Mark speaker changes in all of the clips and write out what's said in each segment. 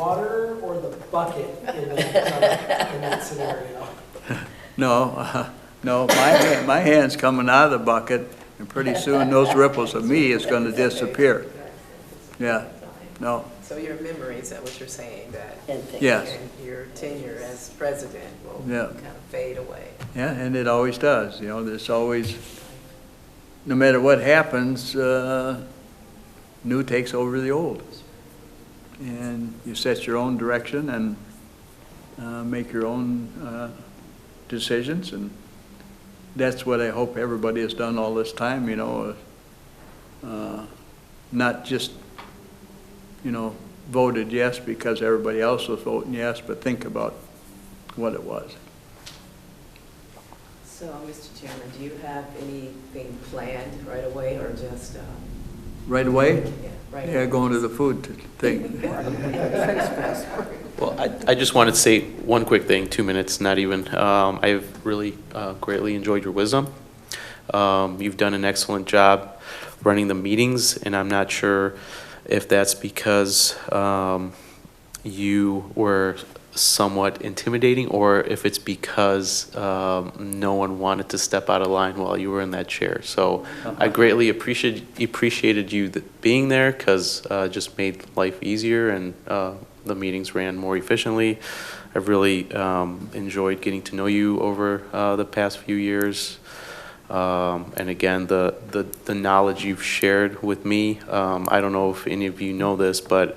Speaker 1: water or the bucket in that, uh, in that scenario?
Speaker 2: No, uh, no, my, hand- my hand's coming out of the bucket, and pretty soon those ripples of me is gonna disappear. Yeah, no,
Speaker 3: So your memory, is that what you're saying, that
Speaker 4: and things.
Speaker 2: yes,
Speaker 3: your tenure as president will
Speaker 2: Yeah.
Speaker 3: kind of fade away?
Speaker 2: yeah, and it always does, you know, there's always, no matter what happens, uh, new takes over the old. And you set your own direction and uh, make your own uh, decisions, and that's what I hope everybody has done all this time, you know, uh, not just, you know, voted yes because everybody else was voting yes, but think about what it was.
Speaker 3: So, Mr. Chairman, do you have anything planned right away or just, um,
Speaker 2: Right away?
Speaker 3: yeah, right?
Speaker 2: Yeah, going to the food thing.
Speaker 5: Well, I, I just wanted to say one quick thing, two minutes, not even. Um, I've really uh, greatly enjoyed your wisdom. Um, you've done an excellent job running the meetings, and I'm not sure if that's because um, you were somewhat intimidating or if it's because um, no one wanted to step out of line while you were in that chair. So I greatly appreciated appreciated you th- being there because uh, it just made life easier and uh, the meetings ran more efficiently. I've really um, enjoyed getting to know you over uh, the past few years. Um, and again, the, the, the knowledge you've shared with me, um, I don't know if any of you know this, but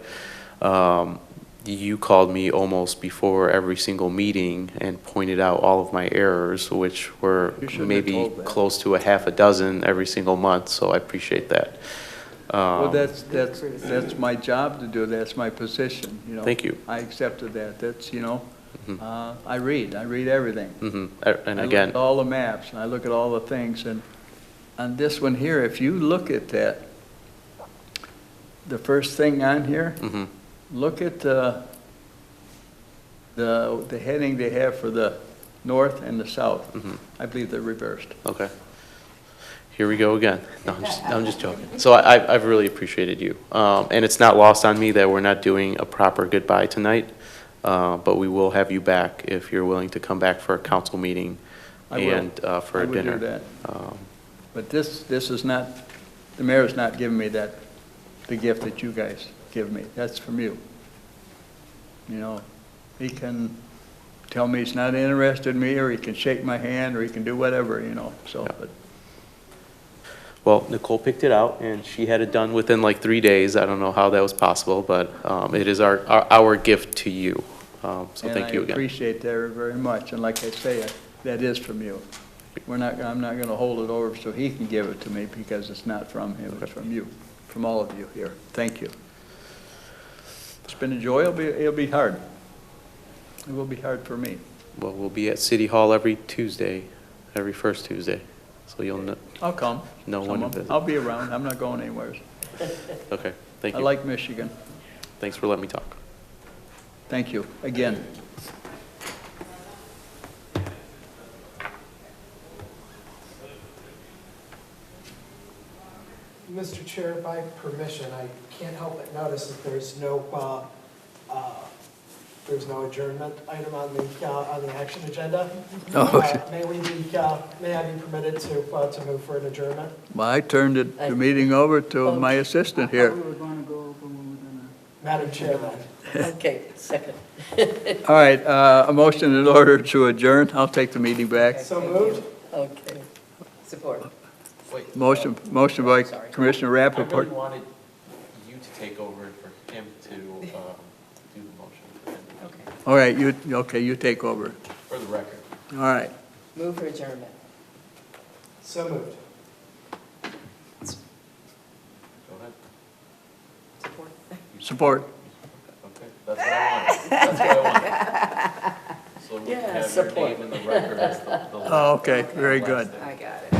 Speaker 5: um, you called me almost before every single meeting and pointed out all of my errors, which were
Speaker 2: You shouldn't have
Speaker 5: maybe
Speaker 2: told that.
Speaker 5: close to a half a dozen every single month, so I appreciate that.
Speaker 2: Well,
Speaker 5: Um,
Speaker 2: that's, that's, that's my job to do, that's my position, you know.
Speaker 5: Thank you.
Speaker 2: I accepted that, that's, you know,
Speaker 5: Mhm.
Speaker 2: uh, I read, I read everything.
Speaker 5: mhm. Uh, And
Speaker 2: I look
Speaker 5: again,
Speaker 2: at all the maps, and I look at all the things, and on this one here, if you look at that, the first thing on here,
Speaker 5: mhm.
Speaker 2: look at the, the, the heading they have for the north and the south.
Speaker 5: Mhm.
Speaker 2: I believe they're reversed.
Speaker 5: Okay. Here we go again. No, I'm just, I'm just joking. So I, I- I've really appreciated you. Um, and it's not lost on me that we're not doing a proper goodbye tonight. Uh, but we will have you back if you're willing to come back for a council meeting
Speaker 2: I will.
Speaker 5: and, uh, for
Speaker 2: I
Speaker 5: a
Speaker 2: would do
Speaker 5: dinner.
Speaker 2: that.
Speaker 5: Um,
Speaker 2: But this, this is not, the mayor's not giving me that, the gift that you guys give me. That's from you. You know, he can tell me he's not interested in me, or he can shake my hand, or he can do whatever, you know, so, but
Speaker 5: Well, Nicole picked it out, and she had it done within like three days. I don't know how that was possible, but um, it is our, our our gift to you. Um, So thank
Speaker 2: And
Speaker 5: you
Speaker 2: I
Speaker 5: again.
Speaker 2: appreciate that very much, and like I say, that is from you. We're not, I'm not gonna hold it over so he can give it to me, because it's not from him, it's from you, from all of you here. Thank you. It's been a joy, it'll be, it'll be hard. It will be hard for me.
Speaker 5: Well, we'll be at City Hall every Tuesday, every first Tuesday. So you'll know,
Speaker 2: I'll come.
Speaker 5: No one
Speaker 2: Someone-
Speaker 5: visit.
Speaker 2: I'll be around, I'm not going anywhere.
Speaker 5: okay, thank
Speaker 2: I
Speaker 5: you.
Speaker 2: like Michigan.
Speaker 5: Thanks for letting me talk.
Speaker 2: Thank you, again.
Speaker 1: Mr. Chair, by permission, I can't help but notice that there's no, uh, uh, there's no adjournment item on the, uh, on the action agenda.
Speaker 2: Oh, okay.
Speaker 1: Uh, May we be, uh, may I be permitted to, uh, to move for an adjournment?
Speaker 2: Well, I turned it- the meeting over to my assistant here.
Speaker 1: Madam Chair, then.
Speaker 4: Okay, second.
Speaker 2: All right, uh, a motion in order to adjourn, I'll take the meeting back.
Speaker 1: so
Speaker 3: Thank you.
Speaker 1: moved?
Speaker 4: Okay.
Speaker 3: Support.
Speaker 2: Motion, motion by
Speaker 3: Sorry.
Speaker 2: Commissioner
Speaker 6: um, I really
Speaker 2: Rappaport.
Speaker 6: wanted you to take over and for him to um, do the motion for him,
Speaker 3: Okay.
Speaker 2: All right, you, okay, you take over.
Speaker 6: for the record.
Speaker 2: All right.
Speaker 3: Move for adjournment.
Speaker 1: So moved.
Speaker 6: Go ahead.
Speaker 3: Support.
Speaker 2: Support.
Speaker 6: Okay, that's what I wanted. That's what I wanted. So we
Speaker 3: Yeah,
Speaker 6: can have your
Speaker 3: support.
Speaker 6: name in the record as the- the.
Speaker 2: Oh, okay, very good.
Speaker 3: I got it.